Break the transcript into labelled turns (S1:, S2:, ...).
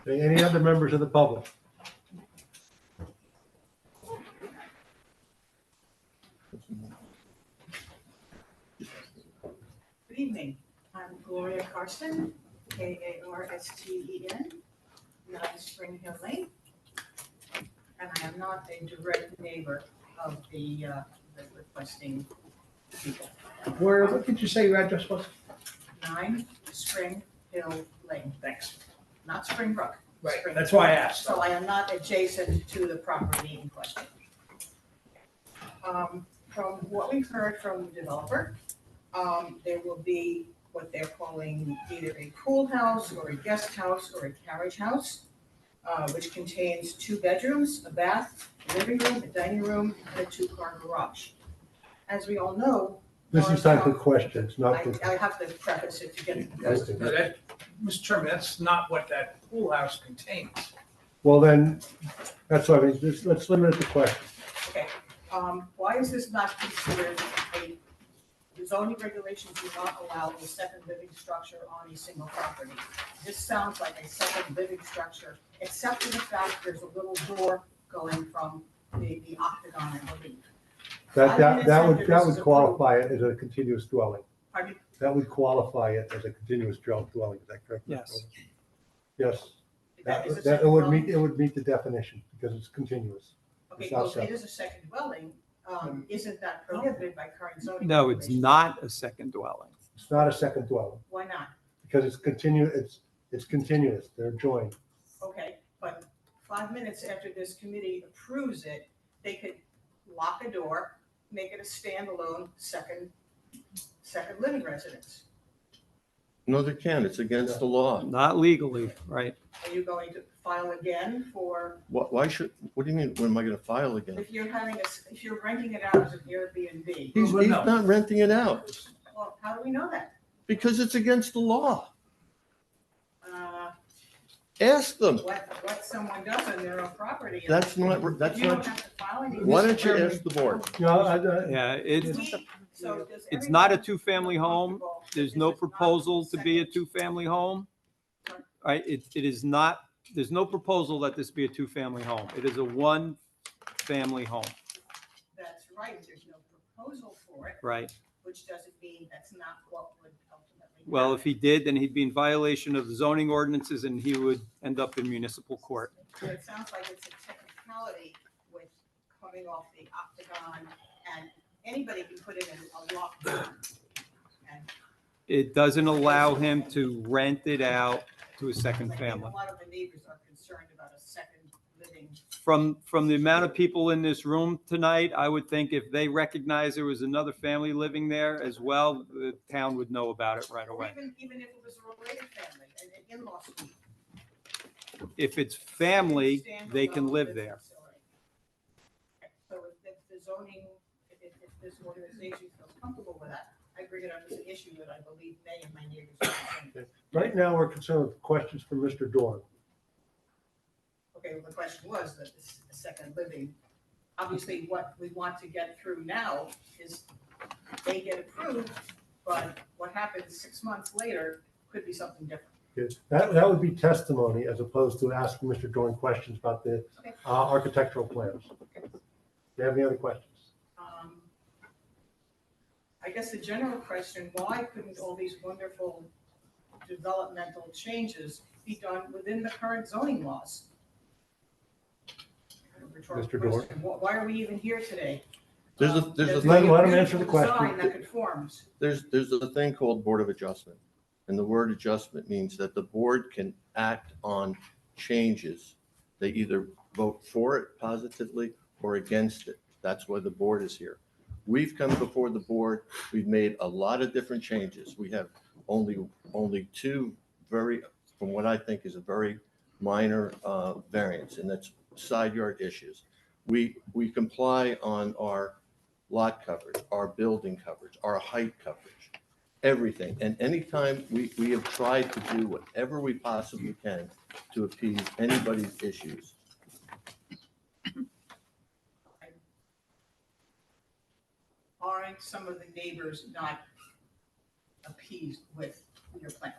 S1: Okay, Any other members of the public?
S2: Good evening, I'm Gloria Carsten, K-A-R-S-T-E-N, not E Spring Hill Lane. And I am not a direct neighbor of the uh, the requesting people.
S3: Where, what did you say your address was?
S2: Nine Spring Hill Lane,
S3: Thanks.
S2: not Spring Brook.
S3: Right,
S2: Spring.
S3: that's why I asked.
S2: So I am not adjacent to the property in question. Um, From what we've heard from the developer, um, there will be what they're calling either a pool house or a guest house or a carriage house, uh, which contains two bedrooms, a bath, a living room, a dining room, and a two-car garage. As we all know,
S1: This is time for questions, not
S2: I,
S1: for.
S2: I have to preface it to get.
S3: No, that- Mr. Chairman, that's not what that pool house contains.
S1: Well, then, that's why I mean, just- let's limit it to questions.
S2: um, why is this not considered a, the zoning regulations do not allow a second living structure on a single property. This sounds like a second living structure, except for the fact there's a little door going from the, the octagon, I believe.
S1: That, that, that
S2: I
S1: would,
S2: didn't say
S1: that
S2: this is
S1: would
S2: approved.
S1: qualify it as a continuous dwelling.
S2: Pardon me?
S1: That would qualify it as a continuous dwell- dwelling, is that correct? Mr.
S4: Yes.
S1: Holden? Yes,
S2: Is
S1: that,
S2: is a
S1: that
S2: second
S1: it would
S2: dwelling?
S1: meet, it would meet the definition because it's continuous.
S2: Okay,
S1: it's
S2: well, if
S1: outside.
S2: it is a second dwelling, um, isn't that prohibited by current zoning?
S4: No, it's
S2: regulations?
S4: not a second dwelling.
S1: It's not a second dwelling
S2: Why not?
S1: because it's continu, it's, it's continuous, they're joined.
S2: Okay, but five minutes after this committee approves it, they could lock a door, make it a standalone second, second living residence.
S5: No, they can't. It's against the law.
S4: Not legally, right?
S2: Are you going to file again for,
S5: Why, why should, what do you mean, when am I gonna file again?
S2: if you're having a, s- if you're renting it out as an Airbnb?
S5: He's,
S3: Well,
S5: he's
S3: no.
S5: not renting it out
S2: Well, how do we know that?
S5: because it's against the law.
S2: Uh,
S5: Ask them.
S2: What, what someone does on their own property.
S5: That's not, that's
S2: You don't
S5: not,
S2: have to file anything.
S5: why don't you ask the board?
S1: You know, I- I-
S4: Yeah, it,
S2: We- so does
S4: It's not a
S2: everybody feel
S4: two-family home.
S2: comfortable that
S4: there's
S2: this
S4: no
S2: is not
S4: proposal to be a
S2: second-
S4: two-family home. Right, it, it is not, there's no proposal that this be a two-family home. It is a one-family home,
S2: That's right, there's no proposal for it.
S4: right?
S2: which doesn't mean that's not what would ultimately.
S4: Well, if
S2: happen.
S4: he did, then he'd be in violation of zoning ordinances and he would end up in municipal court.
S2: So It sounds like it's a technicality with coming off the octagon and anybody can put it in a lock. And
S4: It doesn't allow him to rent it out to a second
S2: like, A
S4: family.
S2: lot of the neighbors are concerned about a second living.
S4: from from the amount of people in this room tonight, I would think if they recognized there was another family living there as well, the town would know about it right
S2: Or
S4: away.
S2: even, even if it was a related family, an an in-law suite.
S4: If it's family, they can
S2: Standalone
S4: live
S2: business
S4: there.
S2: facility. So if if the zoning, if, if if this organization feels comfortable with that, I bring it up as an issue that I believe may and my neighbors. are concerned
S1: Right now, we're concerned with questions for Mr. Dorn.
S2: Okay, well, the question was that this is a second living. Obviously, what we want to get through now is they get approved, but what happens six months later could be something different.
S1: Yes, That, that would be testimony as opposed to asking Mr. Dorn questions about the
S2: Okay.
S1: uh, architectural plans. Do you have any other questions?
S2: Um, I guess the general question, why couldn't all these wonderful developmental changes be done within the current zoning laws? Kind of rhetorical
S1: Mr. Dorr.
S2: question. Why- Why are we even here today?
S5: There's a,
S2: Um,
S5: there's a,
S1: Let- let him answer the
S2: beautiful
S1: question.
S2: design that conforms.
S5: there's, there's a thing called Board of Adjustment. And the word adjustment means that the board can act on changes. They either vote for it positively or against it. That's why the board is here. We've come before the board, we've made a lot of different changes. We have only, only two very, from what I think is a very minor uh, variance, and that's side yard issues. We, we comply on our lot coverage, our building coverage, our height coverage, everything. And anytime, we, we have tried to do whatever we possibly can to appease anybody's issues.
S2: aren't some of the neighbors not appeased with your plans?